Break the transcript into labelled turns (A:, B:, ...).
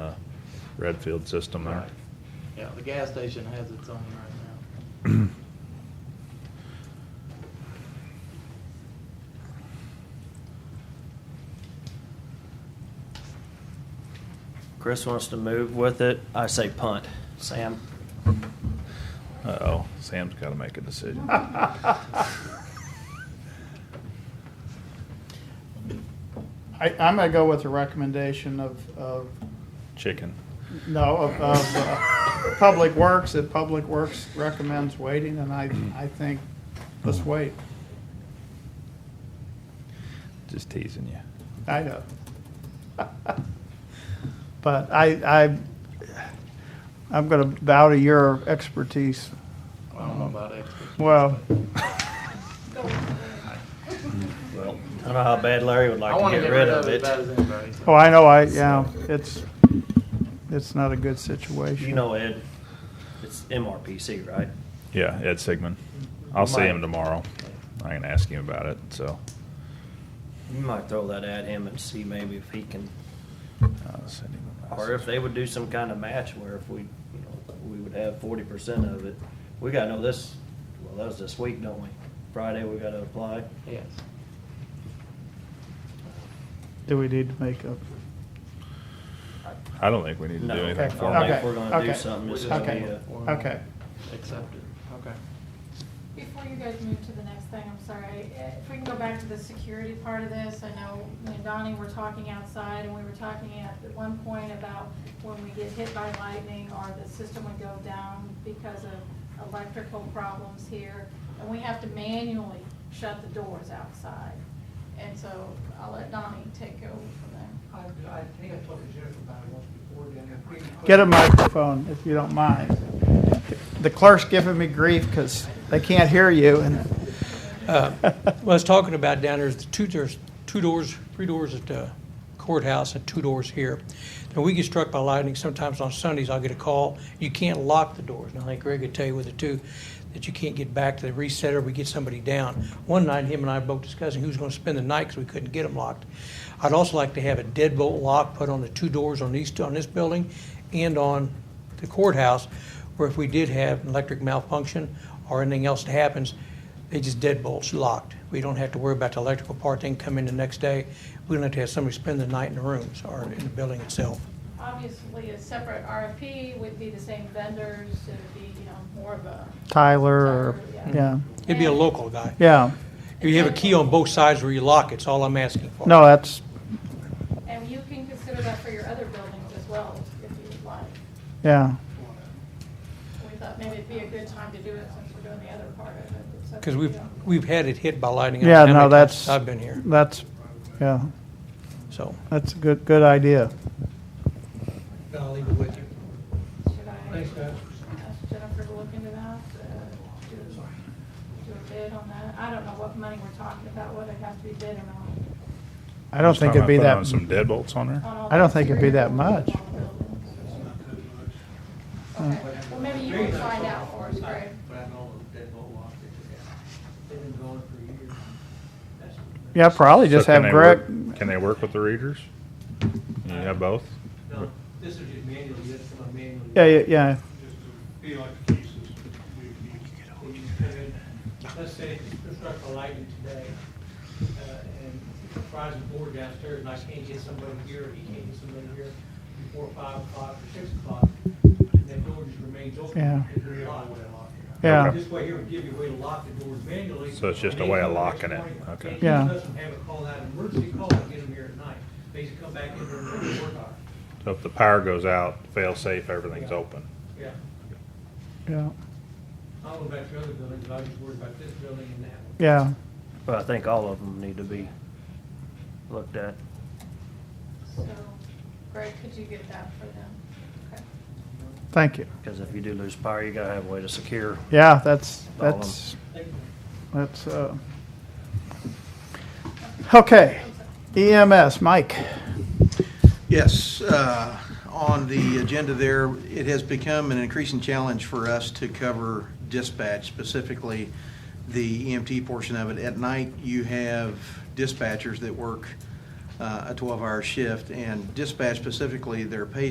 A: uh, Redfield system there.
B: Right. Yeah, the gas station has its own right
C: Chris wants to move with it. I say punt. Sam?
A: Uh-oh, Sam's gotta make a decision.
D: I, I'm gonna go with the recommendation of, of,
A: Chicken.
D: no, of, of, uh, Public Works, that Public Works recommends waiting, and I, I think, let's wait.
A: Just teasing you.
D: I know. But I, I, I'm gonna bow to your expertise.
B: now. I don't know about experts.
D: Well,
C: I don't know how bad Larry would like
B: I want
C: to get rid of
B: it as
C: it.
B: bad as anybody. so.
D: oh, I know, I, yeah, it's, it's not a good situation.
C: You know Ed. It's MRPC, right?
A: Yeah, Ed Sigmund. I'll see him
C: Mike.
A: tomorrow. I can ask him about it, so.
C: You might throw that at him and see maybe if he can,
A: I'll uh, send him a
C: or if
A: message.
C: they would do some kind of match where if we, you know, we would have forty percent of it. We gotta know this, well, that was this week, don't we? Friday, we gotta apply.
B: Yes.
D: Do we need to make a,
A: I don't think we need to do
C: No,
A: anything
D: Okay,
A: for
C: I don't
A: him.
C: think we're gonna
D: okay,
C: do something. It's gonna be uh,
D: okay,
C: a,
D: okay.
B: Accept it. Okay.
E: Before you guys move to the next thing, I'm sorry, eh, if we can go back to the security part of this, I know me and Donnie were talking outside, and we were talking at one point about when we get hit by lightning, or the system would go down because of electrical problems here, and we have to manually shut the doors outside. And so I'll let Donnie take over from there.
F: I, I think I talked to Jennifer about it once before, then if we can put-
D: Get a microphone if you don't mind. The clerk's giving me grief because they can't hear you and.
F: Uh, What I was talking about down there is the two, there's two doors, three doors at the courthouse and two doors here. Now, we get struck by lightning, sometimes on Sundays I'll get a call, you can't lock the doors. Now, I think Greg would tell you with the two, that you can't get back to the resetter, we get somebody down. One night, him and I both discussing who's gonna spend the night because we couldn't get them locked. I'd also like to have a deadbolt lock put on the two doors on these, on this building and on the courthouse, where if we did have an electric malfunction or anything else that happens, they just deadbolts locked. We don't have to worry about the electrical part, they can come in the next day. We don't have to have somebody spend the night in the rooms or in the building itself.
E: Obviously, a separate RFP would be the same vendors, it would be, you know, more of a.
D: Tyler or,
F: Mm-hmm.
E: Tyler,
D: yeah,
F: It'd be a local guy.
D: yeah.
F: If you have a key on both sides where you lock, it's all I'm asking for.
D: No, that's,
E: And you can consider that for your other buildings as well, if you would like.
D: yeah.
E: We thought maybe it'd be a good time to do it since we're doing the other part of it. It's up
F: Because
E: to
F: we've,
E: you.
F: we've had it hit by lightning.
D: Yeah,
F: How many
D: no,
F: times
D: that's-
F: I've been here,
D: That's, yeah,
F: so.
D: that's a good, good idea.
F: I'll leave it with you.
E: Should I
F: Thanks, guys.
E: ask Jennifer to look into that? uh, Do do a bid on that? I don't know what money we're talking about, whether it has to be bid or not.
D: I don't
A: Just
D: think
A: talking
D: it'd be
A: about
D: that,
A: putting on Some deadbolts on there?
E: on all
D: I don't
E: the
D: think it'd be that
E: exterior
D: much.
E: buildings. Okay, well, maybe you can find out for us, Greg.
D: yeah, probably
A: So
D: just
A: can
D: have
A: they
D: Greg,
A: work- Can they work with the readers? You have both?
G: No, this is just manually, that's from a manually.
D: yeah, yeah, yeah.
G: Just to be like the cases, we, we, when you come in, let's say there's struck a lightning today, uh, and fries a board downstairs, and I can't get somebody here, or he can't get somebody here before five o'clock or six o'clock, and that door just remains open.
D: Yeah.
G: It's really locked.
D: Yeah.
G: This way here would give you a way to lock the doors manually.
A: So it's just a
G: and
A: way of
G: anytime next
A: locking it.
G: morning,
A: Okay.
G: and
D: Yeah.
G: It doesn't have a call out, emergency call, and get them here at night, they just come back in during the work hour,
A: So if the power goes out, fail safe, everything's
G: Yeah.
A: open.
G: yeah. I
D: Yeah,
G: don't know about your other buildings, but I was just worried about this building and that one.
D: yeah.
C: but I think all of them need to be looked at.
E: So, Greg, could you get that for them? Okay.
D: Thank you.
C: Because if you do lose power, you gotta have a way to secure.
D: Yeah, that's,
C: All of 'em.
D: that's,
G: Thank you.
D: that's, uh. Okay, EMS, Mike.
H: Yes, uh, on the agenda there, it has become an increasing challenge for us to cover dispatch, specifically the EMT portion of it. At night, you have dispatchers that work uh, a 12-hour shift, and dispatch specifically, their pay